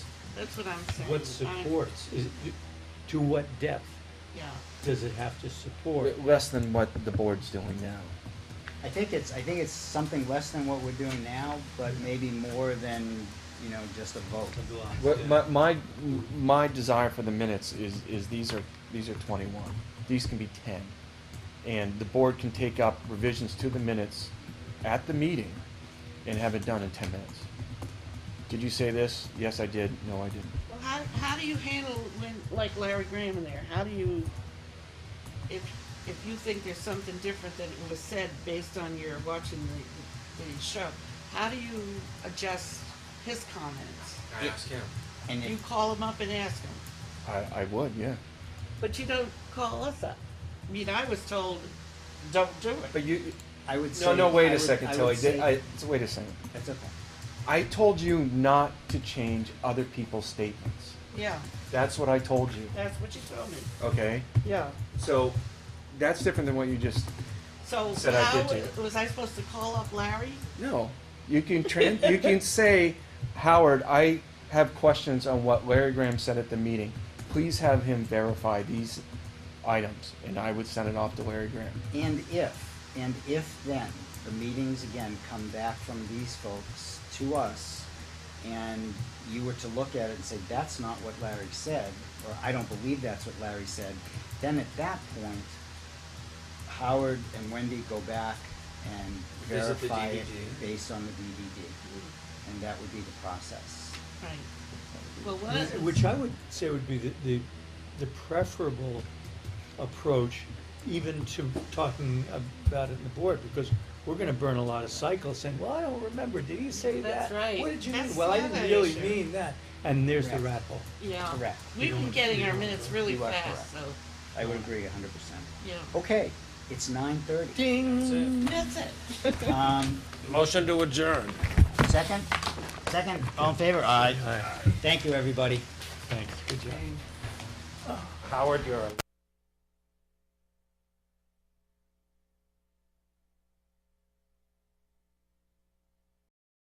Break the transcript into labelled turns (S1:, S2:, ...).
S1: That's what I'm saying.
S2: What
S1: I'm-
S2: supports, is, to what depth
S1: Yeah.
S2: does it have to support?
S3: Less than what the board's doing now.
S4: I think it's, I think it's something less than what we're doing now, but maybe more than, you know, just a vote.
S3: What, my, my, my desire for the minutes is, is these are, these are twenty-one, these can be ten. And the board can take up revisions to the minutes at the meeting and have it done in ten minutes. Did you say this? Yes, I did, no, I didn't.
S1: Well, how, how do you handle when, like Larry Graham in there, how do you, if, if you think there's something different than was said based on your watching the, the show, how do you adjust his comments?
S5: I ask him.
S4: And
S1: You
S4: if,
S1: call him up and ask him,
S3: I, I would, yeah.
S1: but you don't call us up. I mean, I was told, don't do it.
S3: But you,
S4: I would say.
S3: no, no, wait
S4: I
S3: a
S4: would-
S3: second,
S4: I
S3: Tilly,
S4: would say-
S3: Did- I, wait a second.
S4: That's okay.
S3: I told you not to change other people's statements.
S1: Yeah,
S3: That's what I told you.
S1: that's what you told me,
S3: Okay.
S1: yeah.
S3: So that's different than what you just.
S1: So
S3: Said I
S1: how,
S3: did
S1: was I supposed to call up Larry?
S3: No. You can trans, you can say, Howard, I have questions on what Larry Graham said at the meeting. Please have him verify these items, and I would send it off to Larry Graham.
S4: And if, and if then, the meetings again come back from these folks to us, and you were to look at it and say, that's not what Larry said, or I don't believe that's what Larry said, then at that point, Howard and Wendy go back and
S5: Visit the
S4: verify it
S5: DVD.
S4: based on the DVD. And that would be the process.
S1: Right. Well, what is?
S2: Which I would say would be the, the, the preferable approach, even to talking about it in the board, because we're gonna burn a lot of cycles saying, well, I don't remember, did he say that?
S1: That's right.
S2: What did you
S1: That's
S2: mean? Well, I
S1: the
S2: didn't
S1: other
S2: really
S1: issue.
S2: mean that, and there's the
S4: Correct.
S2: rat hole.
S1: Yeah.
S4: Correct.
S1: We've been getting our minutes really
S4: You are
S1: fast, so,
S4: I would agree hundred percent.
S1: yeah.
S4: Um, Okay, it's nine thirty.
S2: Ding!
S1: That's it.
S4: Um,
S5: Motion to adjourn.
S4: second, second, all in favor? Aye.
S2: All right,
S4: Thank you, everybody.
S2: thanks, good job.
S5: Howard, you're a